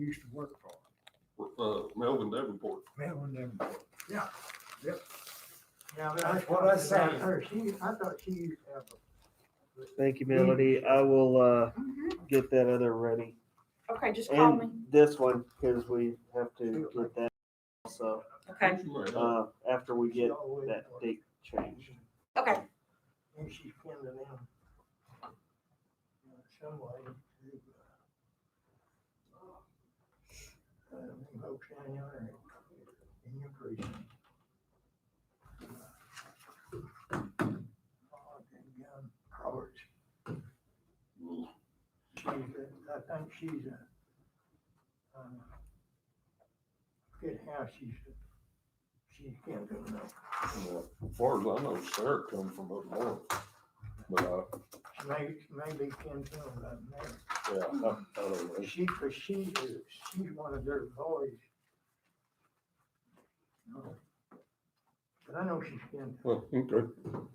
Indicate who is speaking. Speaker 1: used to work for.
Speaker 2: uh, Melvin Davenport.
Speaker 1: Melvin Davenport. Yeah, yep.
Speaker 3: Yeah, but
Speaker 1: That's what I
Speaker 3: said.
Speaker 1: said, her, she, I thought she used to have a
Speaker 4: Thank you,
Speaker 5: Mm.
Speaker 4: Melody. I will uh, get that other ready.
Speaker 5: Mm-hmm. Okay, just call me.
Speaker 4: And this one, because we have to get that also,
Speaker 5: Okay,
Speaker 4: uh, after we
Speaker 1: she
Speaker 4: get
Speaker 1: always
Speaker 4: that
Speaker 1: worked.
Speaker 4: date changed.
Speaker 5: okay.
Speaker 1: And she's coming in. Some way to. uh, uh, Hope Shannon in your precinct. Uh, Oh, and, um, Roberts. She's, a- I think she's a, um, good how she's, she can't do nothing.
Speaker 2: As far as I know, Sarah come from up north. But I,
Speaker 1: She may, maybe can do nothing there.
Speaker 2: yeah, I, I don't know.
Speaker 1: She, cause she is, she's one of their boys. No. But I know she's been
Speaker 2: Well, okay.